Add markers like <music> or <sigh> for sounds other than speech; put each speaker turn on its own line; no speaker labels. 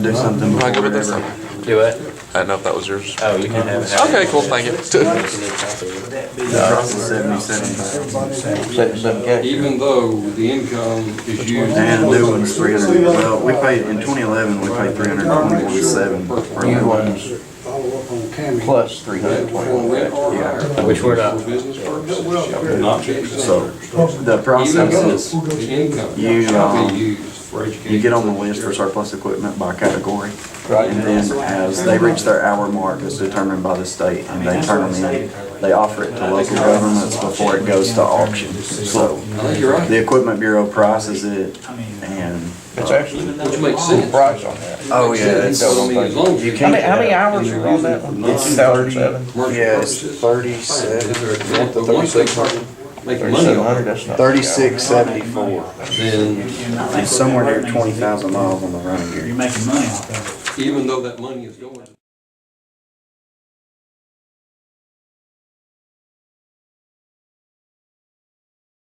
Do something.
Am I good with this? I
Do it.
didn't know if that was yours.
Oh, you can have it.
Okay, cool, thank you. <laughs>
Even though the income is used.
And new one's three hundred, well, we paid, in twenty eleven, we paid three hundred twenty-seven for new ones.
Follow up on Cammy.
Plus three
That for rent or hire.
Which we're not.
For business purposes. shall be exempt.
So, the
Even
process
though
is,
the income
you,
shall
um,
be used for education.
you get on the list for surplus equipment by category. And then as they reach their hour mark, it's determined by the state, and they turn them in. They offer it to local governments before it goes to auction, so.
I think you're right,
The Equipment Bureau prices it and.
It's actually
which makes sense.
price on that.
Oh,
Makes sense. I mean, as long as
You
you-
How
can't-
many, how many hours are on that one?
It's thirty-
2007?
Commercial
Yeah, it's
purposes.
thirty-seven.
Is there a grant that once they start making money
Thirty-seven
on
hundred,
it,
that's not.
Thirty-six seventy-four.
then
It's somewhere near twenty thousand miles on the running gear.
You're making money off of it.
even though that money is going.